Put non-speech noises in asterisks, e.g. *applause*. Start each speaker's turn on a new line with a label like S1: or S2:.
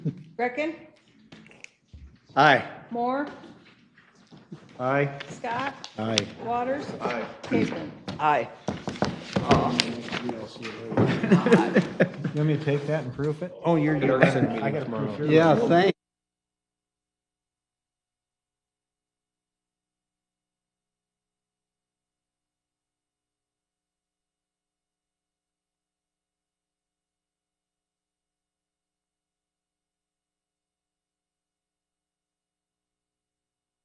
S1: Greckin,
S2: Aye.
S1: Moore,
S2: Aye.
S1: Scott,
S2: Aye. *laughs*
S1: Waters,
S3: Aye.
S1: Kaplin.
S4: Aye.
S5: You want me to take that and proof it?
S2: Oh, you're, you're
S3: They're having a meeting
S2: listening.
S3: tomorrow.
S5: proof your-
S2: Yeah, thank.